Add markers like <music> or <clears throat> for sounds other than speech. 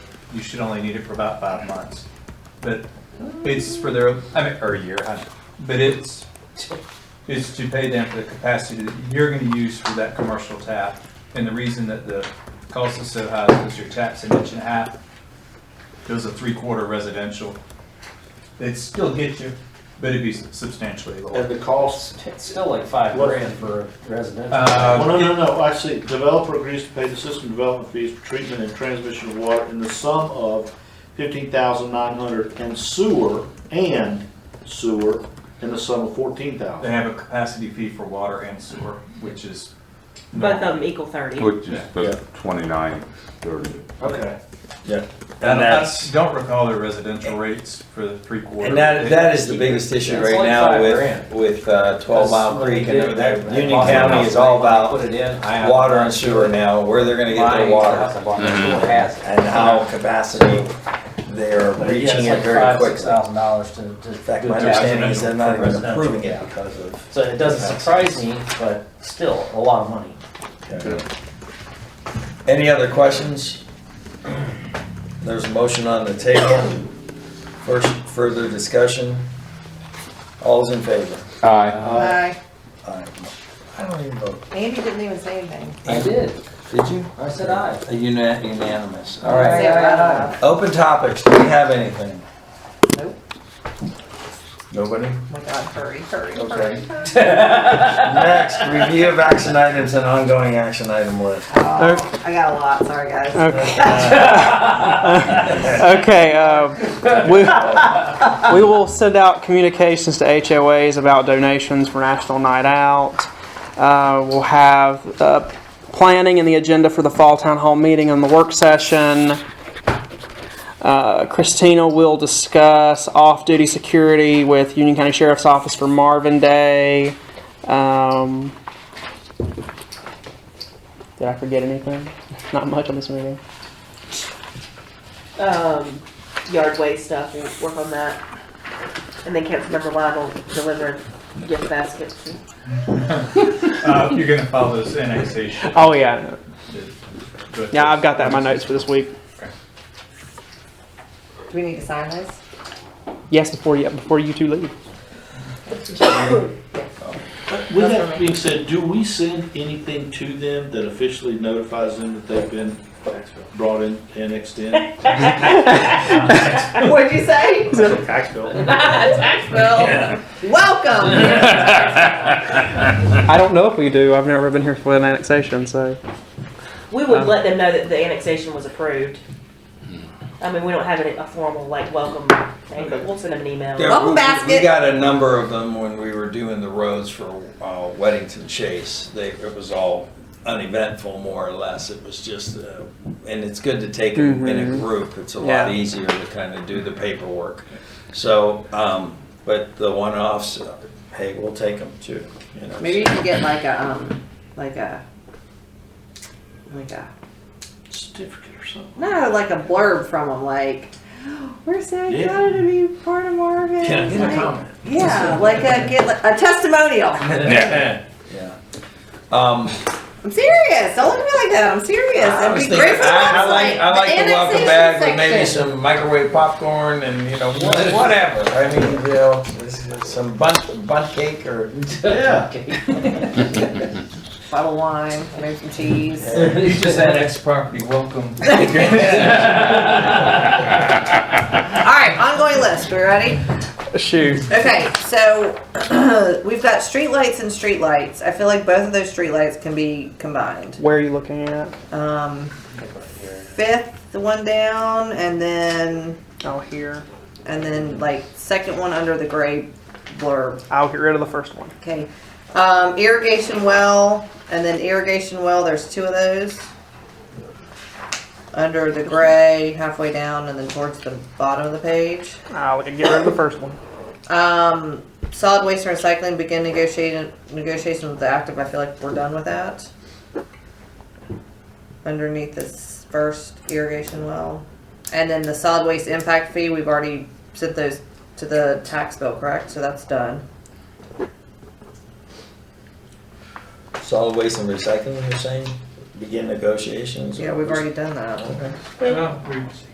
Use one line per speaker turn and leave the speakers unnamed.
you should only need it for about five months. But it's for their, I mean, or a year, I- but it's, it's to pay them for the capacity that you're gonna use for that commercial tap. And the reason that the cost is so high is because your tap's an inch and a half, goes a three-quarter residential. It'd still get you, but it'd be substantially lower.
And the cost,
It's still like five
What-
grand for a residential.
well, Oh, no,
Uh,
no, no, actually, developer agrees to pay the system development fees for treatment and transmission of water in the sum of fifteen thousand nine hundred and sewer, and sewer, in the sum of fourteen
They
thousand.
have a capacity fee for water and sewer, which is.
Both of them equal thirty.
Which
Yeah.
is the twenty-nine, thirty.
Okay.
I
Yeah.
don't,
And
I
that's-
don't recall their residential rates for the three quarter.
And that, that is the biggest issue
It's
right
like
now
five
with,
grand.
with uh, Twelve Mile
That's what
Creek
they
and
did.
everything.
That- that
Union
bottom
County
house
is all
thing, when they
about
Put it in. I have
water
a
and sewer now, where they're gonna get
Mine,
their
the house
water Mm-hmm.
I bought next door has it.
and how capacity they're
But yeah,
reaching
it's
it
like
very
five, six
quickly.
thousand dollars to, to.
In fact,
do
my
that.
understanding is they're not even
Residential.
approving it because of.
So it doesn't surprise me, but still, a lot of money.
Any other questions? There's a motion on the table. First, further discussion. All's in favor?
Aye.
Aye.
Aye. I don't even vote.
Andy didn't even say anything.
I did.
Did you?
I said aye.
A uni- Unanimous, all right.
Say it loud
aye.
enough.
Open topics, do we have anything?
Nope.
Nobody?
Oh my God, hurry, hurry, hurry.
Okay. Next, review of action items and ongoing action item list.
Oh, I got a lot, sorry guys.
Okay, uh, we, we will send out communications to HOAs about donations for National Night Out. Uh, we'll have, uh, planning and the agenda for the Fall Town Hall meeting and the work session. Uh, Christina will discuss off-duty security with Union County Sheriff's Office for Marvin Day. Um, did I forget anything? Not much on this meeting.
Um, yard waste stuff, we'll work on that. And then Councilmember Lyon will deliver gift baskets.
Uh, you're gonna follow this annexation.
Oh, yeah.
But-
Yeah, I've got that in my notes for this week.
Do we need to sign this?
Yes, before you before you two leave.
With that being said, do we send anything to them that officially notifies them that they've been brought in, annexed in?
<laughs> What'd you say?
Tax
<laughs>
bill.
Tax bill. Welcome.
I don't know if we do. I've never been here for an annexation, so
We would let them know that the annexation was approved. I mean, we don't have a, a formal like welcome thing, but we'll send them an
There-
email. Oh,
Welcome
we- We
basket.
got a number of them when we were doing the roads for uh, Weddington Chase. They, it was all uneventful, more or less. It was just, uh, and it's good to take it in a
Mm-hmm.
Mhm.
group. It's a
Yeah.
lot easier to kind of do the paperwork. So, um, but the one-offs, uh, hey, we'll take them too, you know.
Maybe you can get like a, um, like a, like a,
<laughs> Certificate or something.
no, like a blurb from them, like, we're so
Yeah.
excited to be part of Marvin.
Yeah, get a
Like-
comment.
Yeah, like a, get like- a testimonial.
<laughs> Yeah. Um,
I'm serious. Don't look at me like that. I'm serious.
I
That'd
was
be
thinking,
great for
I,
the
I like,
website.
I like the welcome
annexation
bag with maybe
section.
some microwave popcorn and, you know, wha- whatever. I mean, you know, this is some bundt, bundt cake or,
<laughs>
Yeah.
<laughs>
Bottle of wine, maybe some cheese.
Yeah.
You just annexed property, welcome.
All right, ongoing list. We ready?
shoot.
Okay, so <clears throat> we've got streetlights and streetlights. I feel like both of those streetlights can be combined.
Where are you looking at?
Um, fifth one down, and then
Oh, here.
and then like second one under the gray blurb.
I'll get rid of the first one.
Okay, um, irrigation well, and then irrigation well. There's two of those under the gray, halfway down, and then towards the bottom of the page.
I'll get rid of the first one.
Um, solid waste and recycling begin negotiating negotiation with the active. I feel like we're done with that. Underneath this first irrigation well, and then the solid waste impact fee, we've already sent those to the tax bill, correct? So that's done.
solid waste and recycling, you're saying? Begin negotiations?
Yeah, we've already done that.
Well, we-